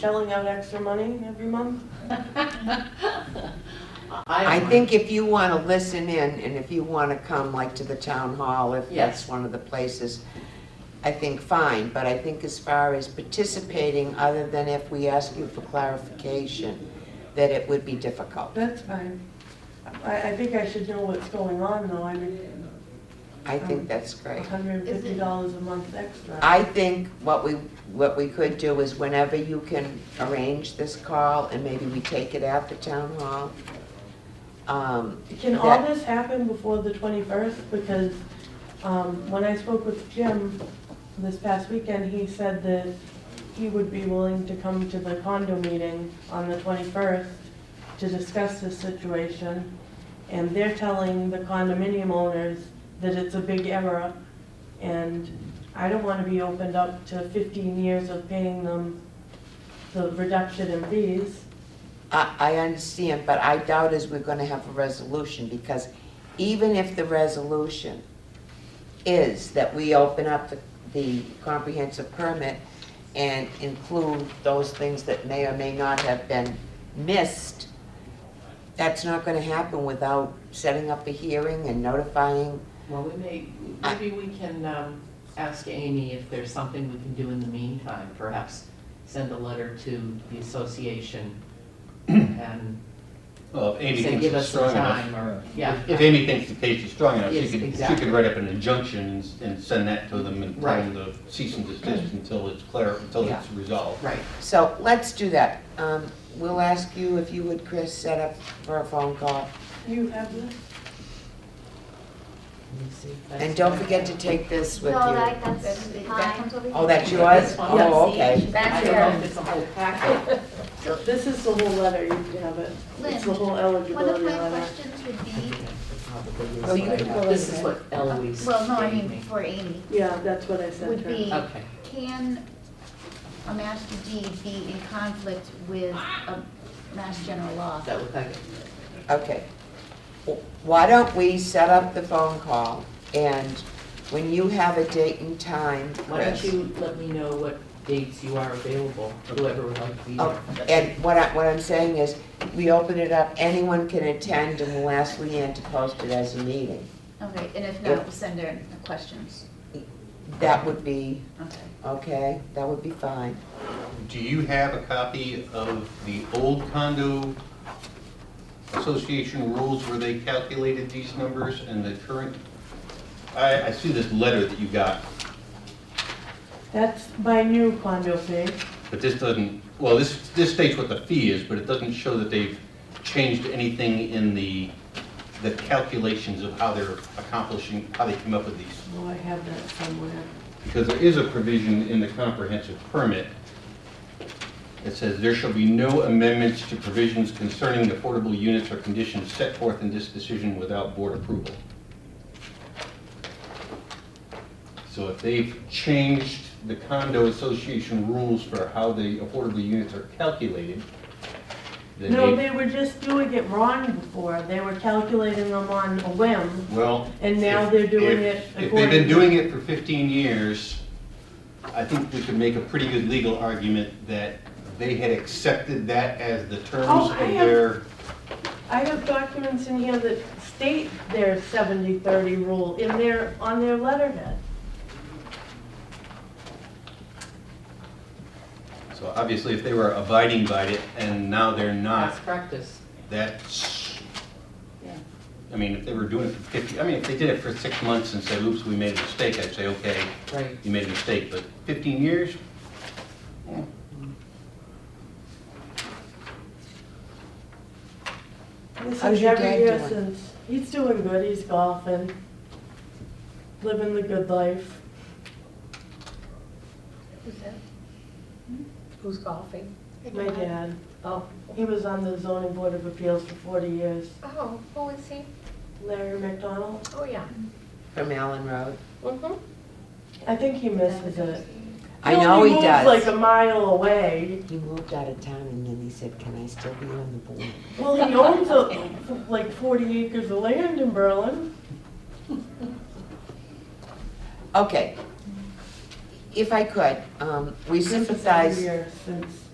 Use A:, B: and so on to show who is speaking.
A: shelling out extra money every month?
B: I think if you want to listen in and if you want to come like to the town hall, if that's
C: Yes.
B: one of the places, I think fine, but I think as far as participating, other than if we ask you for clarification, that it would be difficult.
A: That's fine. I, I think I should know what's going on though, I mean,
B: I think that's great.
A: hundred and fifty dollars a month extra.
B: I think what we, what we could do is whenever you can arrange this call and maybe we take it at the town hall. um,
A: Can all
B: that-
A: this happen before the twenty-first? Because, um, when I spoke with Jim this past weekend, he said that he would be willing to come to the condo meeting on the twenty-first to discuss this situation. And they're telling the condominium owners that it's a big error. And I don't wanna be opened up to fifteen years of paying them the reduction in fees.
B: I, I understand, but I doubt is we're gonna have a resolution, because even if the resolution is that we open up the, the comprehensive permit and include those things that may or may not have been missed, that's not gonna happen without setting up a hearing and notifying.
C: Well, we may, maybe we can um, ask Amy if there's something we can do in the meantime. Perhaps send a letter to the association and
D: Well, if Amy
C: say,
D: thinks
C: give
D: it's
C: us some
D: strong
C: time or,
D: enough.
C: yeah.
D: If Amy thinks the case is strong enough, she
C: Yes,
D: could, she
C: exactly.
D: could write up an injunction and s- and send that to them and tell
C: Right.
D: them to cease and desist until it's clear, until
B: Yeah.
D: it's resolved.
C: Right,
B: So let's do that. Um, we'll ask you if you would, Chris, set up for a phone call.
A: You have this?
C: let me see. if that's-
B: And don't forget to take this with you.
E: No, that, that's
F: That
E: mine.
F: comes over here.
B: Oh, that's yours?
C: This one.
B: Oh, okay.
C: I
F: That's
C: don't know
F: yours.
C: if it's a whole packet.
A: This is the whole letter, you can have it. It's the
E: Lynn,
A: whole
E: one of
A: eligibility
E: my
A: letter.
E: questions would be,
B: Oh, you can go
C: This is
B: ahead.
C: what Eloise
E: well, no, I
C: gave
E: mean,
C: me.
E: for Amy,
A: Yeah, that's what I said to
E: would
A: her.
E: be,
C: Okay.
E: can a master deed be in conflict with a mass general law?
C: Is that what that,
B: Okay. Why don't we set up the phone call, and when you have a date and time,
C: why don't
B: Chris?
C: you let me know what dates you are available, whoever would like to be
B: Oh,
C: there.
B: And what I, what I'm saying is, we open it up, anyone can attend, and we'll ask Leanne to post it as a meeting.
E: Okay, and if
B: Yeah.
E: not, we'll send her the questions,
B: That would be,
E: okay.
B: okay, that would be fine.
D: Do you have a copy of the old condo association rules where they calculated these numbers and the current? I, I see this letter that you got,
A: That's my new condo fee.
D: but this doesn't, well, this, this states what the fee is, but it doesn't show that they've changed anything in the, the calculations of how they're accomplishing, how they came up with these.
A: Oh, I have that somewhere.
D: Because there is a provision in the comprehensive permit that says there shall be no amendments to provisions concerning the portable units or conditions set forth in this decision without board approval. So if they've changed the condo association rules for how the affordable units are calculated, then
A: No,
D: they,
A: they were just doing it wrong before. They were calculating them on a whim,
D: well,
A: and now
D: If-
A: they're doing it
D: if- If they've been
A: according.
D: doing it for 15 years, I think we could make a pretty good legal argument that they had accepted that as the terms
A: Oh,
D: of
A: I have-
D: their,
A: I have documents in here that state their 70-30 rule in their, on their letterhead.
D: so obviously if they were abiding by it and now they're not,
C: Past practice.
D: that's,
C: Yeah.
D: I mean, if they were doing it for 50, I mean, if they did it for six months and said, oops, we made a mistake, I'd say, okay,
C: Right.
D: you made a mistake, but 15 years? Eh.
A: This
B: How's
A: is
B: your
A: every
B: dad
A: year
B: doing?
A: since, he's doing good, he's golfing, living the good life.
E: Hmm?
F: Who's golfing?
A: My dad,
F: Oh,
A: he was on the zoning board of appeals for 40 years.
F: oh, who is he?
A: Larry McDonald,
F: Oh, yeah.
B: From Allen Road.
A: I think he misses it.
B: I know
A: only
B: he
A: moves Like
B: does.
A: a mile away.
B: He moved out of town, and then he said, can I still be on the board?
A: Well, he owns a, like forty acres of land in Berlin.
B: Okay. If I could, um, we
A: This is every
B: um, sympathize
A: year Since